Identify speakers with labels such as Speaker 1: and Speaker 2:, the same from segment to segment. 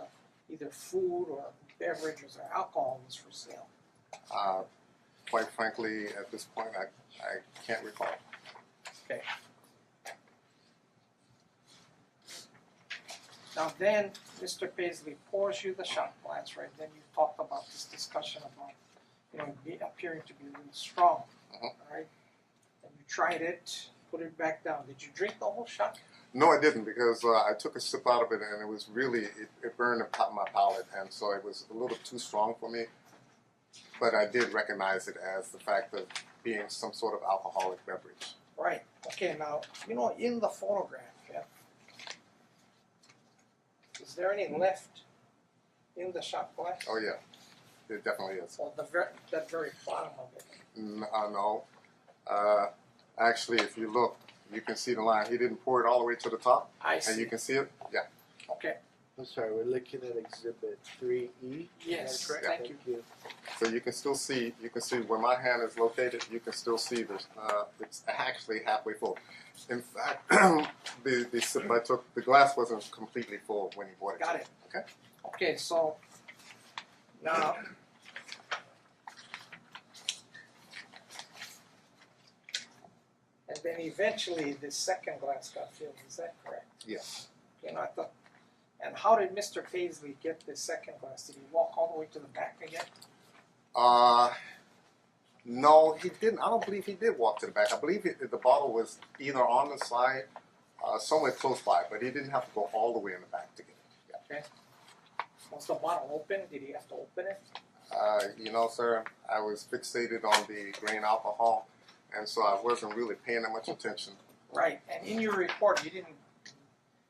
Speaker 1: uh, either food or beverages or alcohol was for sale.
Speaker 2: Uh, quite frankly, at this point, I, I can't recall.
Speaker 1: Now then, Mr. Paisley pours you the shot glass, right, then you talked about this discussion about, you know, be appearing to be really strong,
Speaker 2: Mhm.
Speaker 1: alright? And you tried it, put it back down, did you drink the whole shot?
Speaker 2: No, I didn't because uh, I took a sip out of it and it was really it, it burned the top of my palate and so it was a little too strong for me. But I did recognize it as the fact of being some sort of alcoholic beverage.
Speaker 1: Right, okay, now, you know, in the photograph, yeah. Is there any left in the shot glass?
Speaker 2: Oh yeah, it definitely is.
Speaker 1: Or the ver- that very bottom of it?
Speaker 2: N- uh, no, uh, actually, if you look, you can see the line. He didn't pour it all the way to the top,
Speaker 1: I
Speaker 2: and you
Speaker 1: see,
Speaker 2: can see it. Yeah.
Speaker 1: okay,
Speaker 3: I'm sorry, we're looking at exhibit three E.
Speaker 1: Yes,
Speaker 3: correct?
Speaker 1: thank
Speaker 3: Thank you.
Speaker 2: So you can still see, you can see where my hand is located. You can still see this. Uh, it's actually halfway full. In fact, the the sip I took, the glass wasn't completely full when he bought it.
Speaker 1: got it.
Speaker 2: Okay.
Speaker 1: Okay, so now And then eventually the second glass got filled, is that correct?
Speaker 2: Yes.
Speaker 1: You know, I thought and how did Mister Paisley get the second glass? Did he walk all the way to the back again?
Speaker 2: Uh, no, he didn't. I don't believe he did walk to the back. I believe it, the bottle was either on the side, uh, somewhere close by, but he didn't have to go all the way in the back to get it. Yeah.
Speaker 1: Was the bottle open? Did he have to open it?
Speaker 2: Uh, you know, sir, I was fixated on the grain alcohol, and so I wasn't really paying that much attention.
Speaker 1: Right, and in your report, you didn't,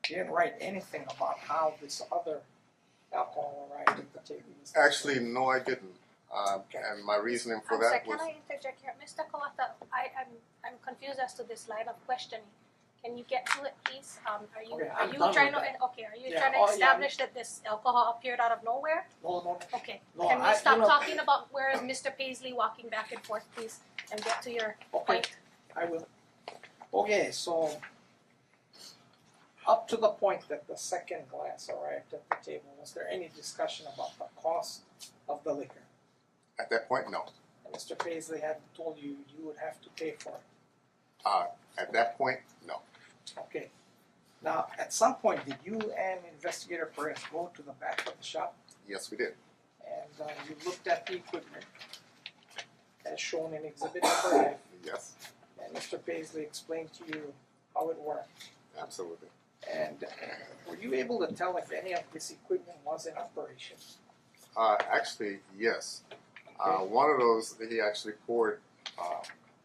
Speaker 1: you didn't write anything about how this other alcohol arrived at the table. Is that
Speaker 2: Actually, no, I didn't. Um, and my reasoning for
Speaker 4: I'm sorry,
Speaker 2: that
Speaker 4: can
Speaker 2: was
Speaker 4: I interject here? Mr. Kawata, I, I'm, I'm confused as to this line of questioning. Can you get to it, please? Um, are you,
Speaker 1: Okay,
Speaker 4: are
Speaker 1: I'm
Speaker 4: you
Speaker 1: done
Speaker 4: trying to,
Speaker 1: with
Speaker 4: okay, are you
Speaker 1: Yeah,
Speaker 4: trying to
Speaker 1: oh, yeah,
Speaker 4: establish that this alcohol appeared out of nowhere?
Speaker 1: No, no, no.
Speaker 4: Okay,
Speaker 1: No,
Speaker 4: can
Speaker 1: I-
Speaker 4: we stop
Speaker 1: you know-
Speaker 4: talking about where is Mr. Paisley walking back and forth, please, and get to your
Speaker 1: Okay,
Speaker 4: point?
Speaker 1: I will. Okay, so up to the point that the second glass arrived at the table, was there any discussion about the cost of the liquor?
Speaker 2: at that point. No,
Speaker 1: And Mr. Paisley had told you you would have to pay for it.
Speaker 2: uh, at that point, no.
Speaker 1: Okay. Now, at some point, did you and Investigator Perez go to the back of the shop
Speaker 2: Yes, we did.
Speaker 1: And uh you looked at the equipment as shown in exhibit number F,
Speaker 2: Yes,
Speaker 1: and Mr. Paisley explained to you how it worked.
Speaker 2: absolutely.
Speaker 1: And uh, were you able to tell if any of this equipment was in operation?
Speaker 2: Uh, actually, yes. Uh,
Speaker 1: Okay.
Speaker 2: one of those that he actually poured uh,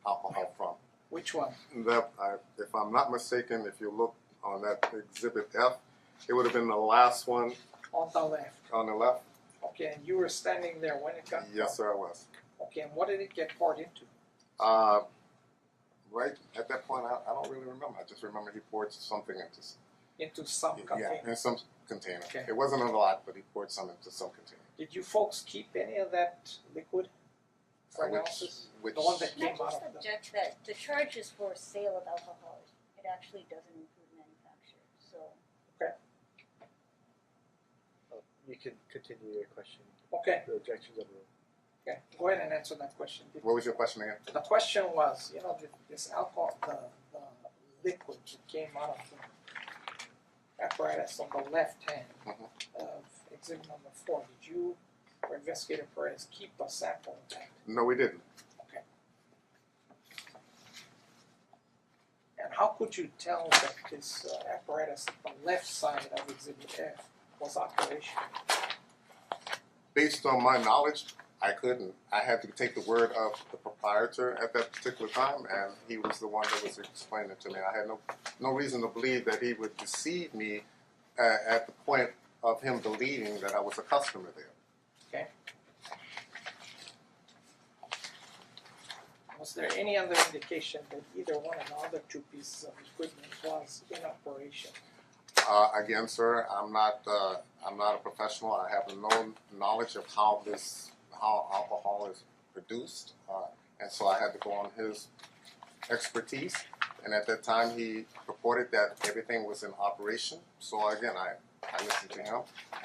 Speaker 2: alcohol from.
Speaker 1: Which one?
Speaker 2: That, I, if I'm not mistaken, if you look on that exhibit F, it would have been the last one
Speaker 1: On the left.
Speaker 2: on the left.
Speaker 1: Okay, and you were standing there when it got
Speaker 2: Yes, sir, I was.
Speaker 1: Okay, and what did it get poured into?
Speaker 2: Uh, right at that point, I, I don't really remember. I just remember he poured something into s-
Speaker 1: Into some container.
Speaker 2: Yeah, in some container.
Speaker 1: Oh, Okay.
Speaker 2: It wasn't a lot, but he poured some into some container.
Speaker 1: Did you folks keep any of that liquid for
Speaker 2: Uh, which-
Speaker 1: analysis?
Speaker 2: Which,
Speaker 1: The one that
Speaker 5: Can I
Speaker 1: came out
Speaker 5: just
Speaker 1: of the
Speaker 5: object that the charge is for sale of alcohol, it actually doesn't include manufacture, so.
Speaker 3: Oh, You can continue your question,
Speaker 1: Okay,
Speaker 3: the objections of the room.
Speaker 1: okay, go ahead and answer that question. Did
Speaker 2: what was your question again?
Speaker 1: The question was, you know, th- this alcohol, the, the liquid that came out of the apparatus on the left hand
Speaker 2: Mhm.
Speaker 1: of exhibit number four, did you or investigator Perez keep a sample of that?
Speaker 2: No, we didn't.
Speaker 1: And how could you tell that this uh, apparatus on the left side of exhibit F was operational?
Speaker 2: Based on my knowledge, I couldn't. I had to take the word of the proprietor at that particular time, and he was the one that was explaining it to me. I had no no reason to believe that he would deceive me uh, at the point of him believing that I was a customer there.
Speaker 1: Was there any other indication that either one of the other two pieces of equipment was in operation?
Speaker 2: Uh, again, sir, I'm not, uh, I'm not a professional. I have no knowledge of how this, how alcohol is produced. Uh, and so I had to go on his expertise. And at that time, he purported that everything was in operation. So again, I, I listened to him.